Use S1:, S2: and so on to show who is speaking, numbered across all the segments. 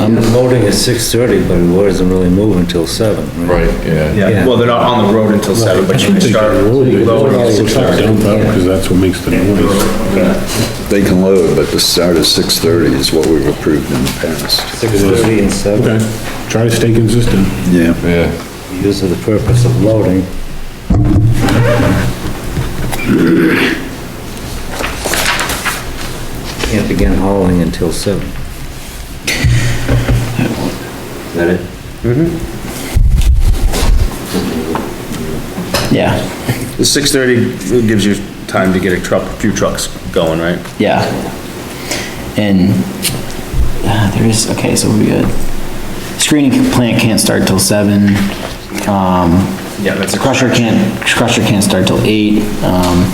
S1: And the voting is six thirty, but it doesn't really move until seven, right?
S2: Right, yeah.
S3: Yeah, well, they're not on the road until seven, but you can start loading at six thirty.
S4: Because that's what makes the noise.
S5: They can load, but the start at six thirty is what we've approved in the past.
S1: Six thirty and seven,
S4: Okay, try to stay consistent.
S5: Yeah.
S2: Yeah,
S1: these are the purpose of loading. Can't begin hauling until seven. Is that it?
S6: Yeah,
S3: The six thirty gives you time to get a truck, a few trucks going, right?
S6: yeah. And, uh, there is, okay, so we got, screening plant can't start till seven, um,
S3: Yeah, that's a
S6: crusher can't, crusher can't start till eight, um,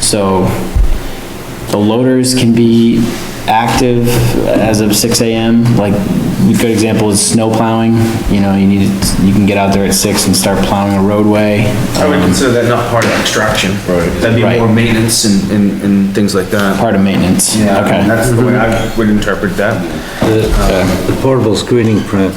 S6: so the loaders can be active as of six AM, like, a good example is snow plowing, you know, you need, you can get out there at six and start plowing a roadway. Um,
S3: I would consider that not part of extraction. Right. That'd be
S6: Right.
S3: more maintenance and, and, and things like that.
S6: Part of maintenance, okay.
S3: Yeah, That's the way I would interpret that.
S1: The the portable screening print,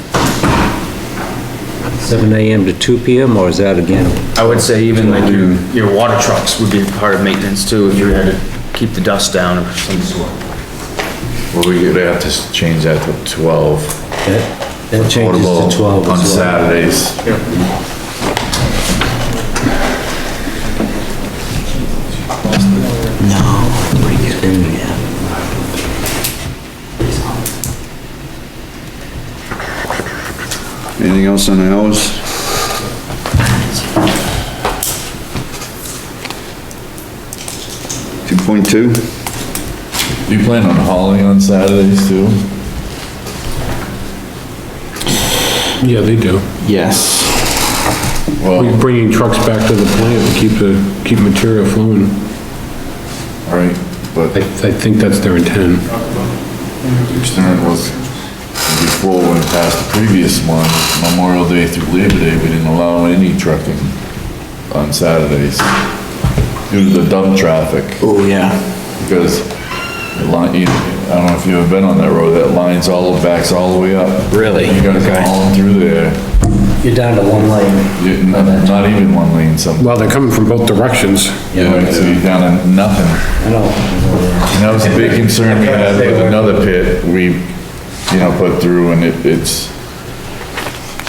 S1: seven AM to two PM, or is that again?
S3: I would say even like your, your water trucks would be part of maintenance too, if you had to keep the dust down or some sort.
S2: well, we would have to change that to twelve.
S1: That that changes
S2: Portable
S1: to twelve
S2: On
S1: as well.
S2: Saturdays.
S5: Anything else on the hours? Two point two?
S2: Do you plan on hauling on Saturdays too?
S4: Yeah, they do.
S6: Yes,
S2: Well,
S4: We're bringing trucks back to the plant to keep the, keep material flowing.
S2: all right, but
S4: I, I think that's their intent.
S2: concern was before when past the previous one, Memorial Day through Labor Day, we didn't allow any trucking on Saturdays due to the dump traffic.
S6: oh, yeah.
S2: because it line, you- I don't know if you've ever been on that road, that line's all, backs all the way up.
S6: Really?
S2: You gotta
S6: Okay.
S2: come all through there,
S1: You're down to one lane.
S2: You- not not even one lane some,
S4: Well, they're coming from both directions.
S2: Right, so you're down to nothing.
S1: I know.
S2: And that was a big concern we had with another pit we, you know, put through and it, it's,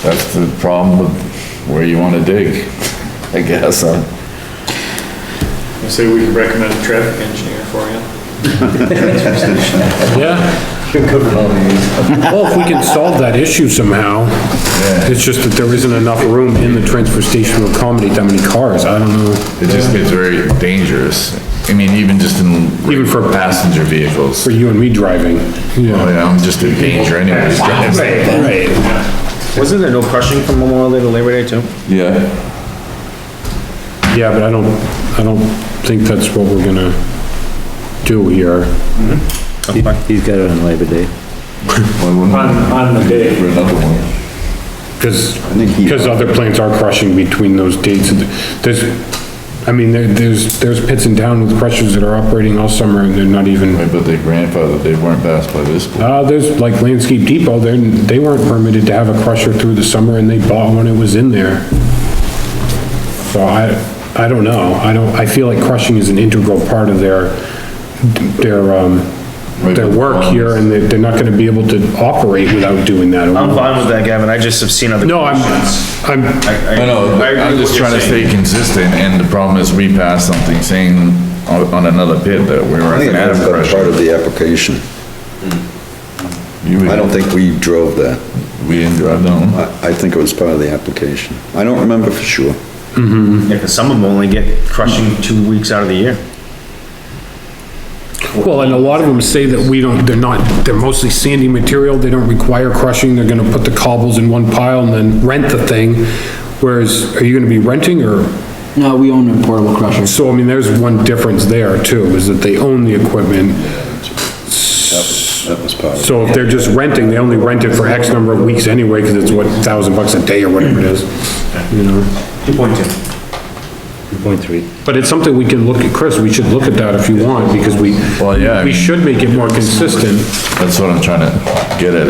S2: that's the problem with where you wanna dig, I guess, huh?
S7: I say we could recommend a traffic engineer for you.
S4: Yeah. Well, if we can solve that issue somehow, it's just that there isn't enough room in the transfer station to accommodate that many cars. I don't know.
S2: It just gets very dangerous. I mean, even just in.
S4: Even for-
S2: Passenger vehicles.
S4: For you and me driving.
S2: Well, yeah, I'm just in danger anyways.
S4: Right.
S3: Wasn't there no crushing from Memorial Day to Labor Day too?
S2: Yeah,
S4: Yeah, but I don't, I don't think that's what we're gonna do here.
S1: He's got it on Labor Day.
S2: well, wouldn't
S7: On, on the
S2: it
S7: day,
S2: for another one.
S4: Cause,
S5: think he-
S4: cause other plants are crushing between those dates. and There's, I mean, there, there's, there's pits in town with crushers that are operating all summer and they're not even,
S2: Right, but they grandfathered, they weren't passed by this board.
S4: uh, there's like Landscape Depot, they're, they weren't permitted to have a crusher through the summer and they bought one, it was in there. So I, I don't know. I don't, I feel like crushing is an integral part of their, their, um,
S2: Right,
S4: their
S2: but-
S4: work here and they're, they're not gonna be able to operate without doing that.
S3: I'm fine with that, Gavin, I just have seen other.
S4: No, I'm,
S3: crushings.
S4: I'm,
S2: I know,
S3: I agree
S2: I'm
S3: with
S2: just
S3: what
S2: trying
S3: you're
S2: to
S3: saying.
S2: stay consistent, and the problem is we passed something saying on, on another pit that we
S5: I
S2: weren't
S5: think
S2: gonna have
S5: that's been part
S2: pressure.
S5: of the application.
S2: You would-
S5: I don't think we drove that.
S2: We didn't drive down.
S5: I, I think it was part of the application. I don't remember for sure.
S3: Yeah, 'cause some of them only get crushing two weeks out of the year.
S4: Well, and a lot of them say that we don't, they're not, they're mostly sandy material, they don't require crushing, they're gonna put the cobbles in one pile and then rent the thing. Whereas, are you gonna be renting or,
S6: No, we own a portable crusher.
S4: so I mean, there's one difference there too, is that they own the equipment.
S5: That was part of it.
S4: So if they're just renting, they only rent it for X number of weeks anyway, cause it's what, thousand bucks a day or whatever it is. You know,
S3: Two point two.
S1: Point three.
S4: but it's something we can look at, Chris, we should look at that if you want, because we,
S2: Well, yeah, I
S4: we
S2: mean-
S4: should make it more consistent.
S2: That's what I'm trying to get at,